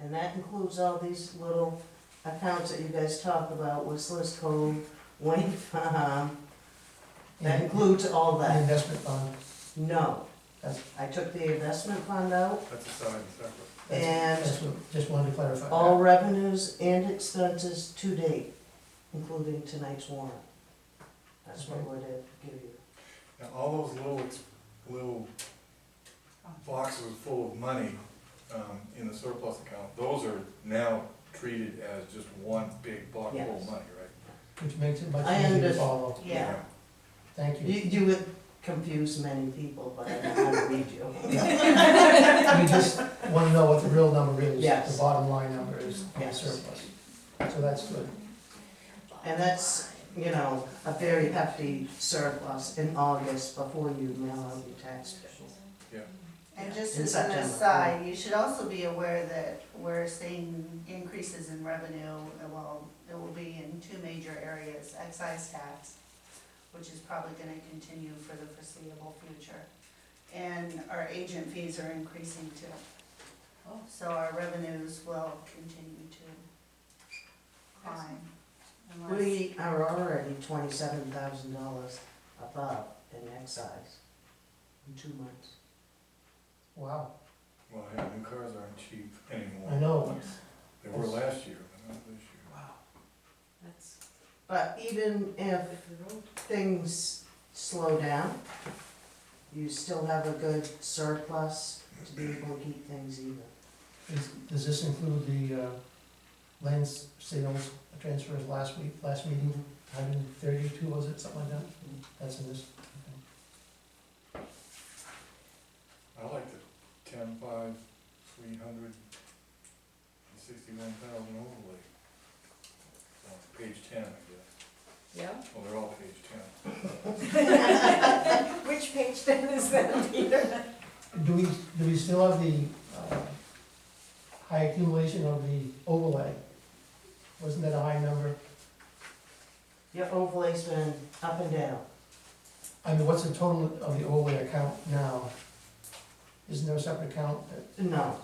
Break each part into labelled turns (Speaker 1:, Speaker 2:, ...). Speaker 1: And that includes all these little accounts that you guys talk about, Whistler's Cove, Wayne Farm, that
Speaker 2: And
Speaker 1: includes all
Speaker 2: the
Speaker 1: that.
Speaker 2: investment fund,
Speaker 1: No,
Speaker 2: That's-
Speaker 1: I took the investment fund out,
Speaker 3: That's a sign, separate.
Speaker 2: that's, that's what, just wanted to clarify.
Speaker 1: all revenues and expenses to date, including tonight's warrant. That's what we're to give you.
Speaker 3: Now, all those little, little boxes full of money, um, in the surplus account, those are now treated as just one big block full
Speaker 1: Yes.
Speaker 3: of money, right?
Speaker 2: Which makes it much
Speaker 1: I
Speaker 2: easier to
Speaker 1: under-
Speaker 2: follow,
Speaker 4: Yeah.
Speaker 2: thank
Speaker 1: You,
Speaker 2: you.
Speaker 1: you would confuse many people, but I don't want to read you.
Speaker 2: We just wanna know what the real number is,
Speaker 1: Yes.
Speaker 2: the bottom line number is on the
Speaker 1: Yes.
Speaker 2: surplus, so that's good.
Speaker 1: And that's, you know, a very hefty surplus in August before you mail out your tax bill.
Speaker 4: And just
Speaker 1: In
Speaker 4: as an
Speaker 1: September.
Speaker 4: aside, you should also be aware that we're seeing increases in revenue, uh, well, it will be in two major areas, excise tax, which is probably gonna continue for the foreseeable future, and our agent fees are increasing too.
Speaker 5: Oh.
Speaker 4: So our revenues will continue to climb. unless-
Speaker 1: We are already twenty-seven thousand dollars above in excise in two months.
Speaker 2: Wow,
Speaker 3: Well, yeah, new cars aren't cheap anymore.
Speaker 2: I know,
Speaker 3: They were last year, but not this year.
Speaker 5: That's
Speaker 1: But even if
Speaker 5: good for the road.
Speaker 1: things slow down, you still have a good surplus to be able to keep things even.
Speaker 2: Is- does this include the, uh, land s- sales transfers last week, last meeting, hundred and thirty-two, was it, something like that? That's in this,
Speaker 3: I like the ten, five, three hundred, and sixty-one thousand overlay. Uh, Page ten, I guess.
Speaker 5: Yeah?
Speaker 3: Well, they're all page ten.
Speaker 5: Which page then is that, Peter?
Speaker 2: do we, do we still have the, uh, high accumulation of the overlay? Wasn't that a high number?
Speaker 1: Your overlay's been up and down.
Speaker 2: I mean, what's the total of the overlay account now? Isn't there a separate account that,
Speaker 1: No,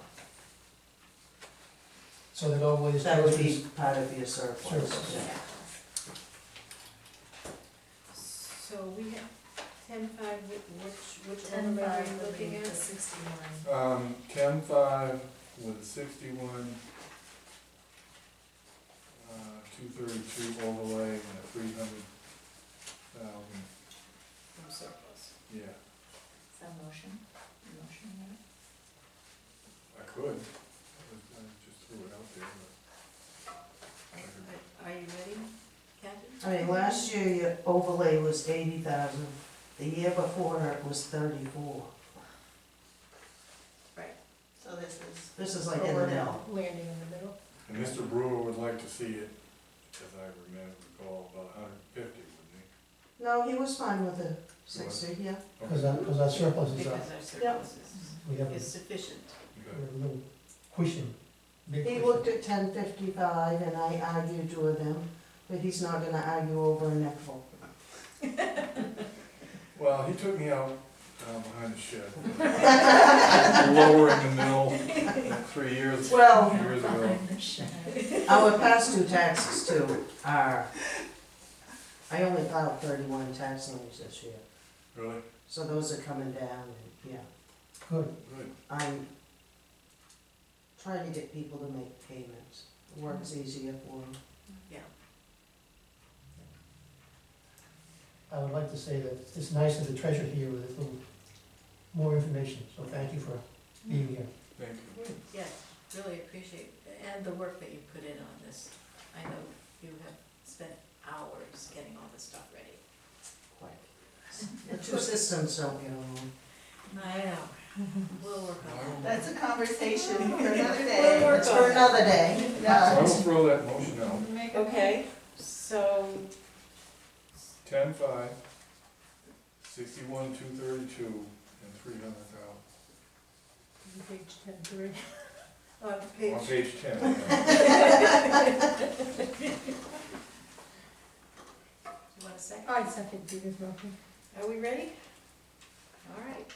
Speaker 2: so that overlay is
Speaker 1: that would be
Speaker 2: transfers?
Speaker 1: part of your surplus.
Speaker 2: Surplus.
Speaker 1: yeah.
Speaker 5: So we have ten five, which, which
Speaker 4: Ten
Speaker 5: one are
Speaker 4: five
Speaker 5: we
Speaker 4: would
Speaker 5: looking
Speaker 4: be
Speaker 5: at?
Speaker 4: the
Speaker 5: sixty-one.
Speaker 3: Um, ten five with sixty-one, uh, two thirty-two overlay and a three hundred thousand,
Speaker 5: From surplus.
Speaker 3: yeah,
Speaker 4: Is that motion? Motion,
Speaker 3: I could. I was- I just threw it out there, but. I could-
Speaker 5: Are- Are you ready, Kathy?
Speaker 1: I mean, last year your overlay was eighty thousand, the year before it was thirty-four.
Speaker 4: So this is.
Speaker 1: This is like in the middle.
Speaker 5: Landing in the middle.
Speaker 3: And Mr. Brewer would like to see it, as I remember, recall, about a hundred and fifty,
Speaker 1: No,
Speaker 3: wouldn't
Speaker 1: he was fine with the sixty, yeah.
Speaker 3: he?
Speaker 2: Cause our, cause our surplus is up,
Speaker 5: Because our surplus is,
Speaker 2: we have a
Speaker 5: is sufficient.
Speaker 2: we
Speaker 3: Good.
Speaker 2: have a little cushion, big
Speaker 1: He
Speaker 2: cushion.
Speaker 1: looked at ten fifty-five and I argued with him, but he's not gonna argue over a nickel.
Speaker 3: Well, he took me out, um, behind the shed. Lower in the mill, three years,
Speaker 1: Well-
Speaker 3: years ago.
Speaker 1: Our past due taxes too are, I only filed thirty-one tax numbers this year,
Speaker 3: Really?
Speaker 1: so those are coming down and, yeah.
Speaker 2: Good,
Speaker 3: Good.
Speaker 1: I'm trying to get people to make payments. Works easier for them.
Speaker 2: I would like to say that it's nice of the treasure here with a little more information, so thank you for being here.
Speaker 3: Thank you.
Speaker 5: Yes, really appreciate, and the work that you put in on this. I know you have spent hours getting all this stuff ready.
Speaker 1: Quick. The two systems don't get along.
Speaker 5: I know, we'll work on that.
Speaker 4: That's a conversation for another day.
Speaker 5: We'll work
Speaker 1: It's for
Speaker 5: on it.
Speaker 1: another day.
Speaker 3: I will
Speaker 4: Yeah.
Speaker 3: throw that motion out.
Speaker 5: Okay, so,
Speaker 3: Ten five, sixty-one, two thirty-two, and three hundred thousand.
Speaker 5: page ten three. On
Speaker 3: On
Speaker 5: uh, page,
Speaker 3: page ten. yeah.
Speaker 5: you want Oh, a second?
Speaker 6: I second Peter's motion.
Speaker 5: Are we ready? All right.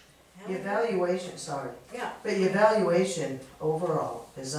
Speaker 5: Have
Speaker 1: Your
Speaker 5: it.
Speaker 1: valuation, sorry,
Speaker 5: Yeah,
Speaker 1: but your valuation overall is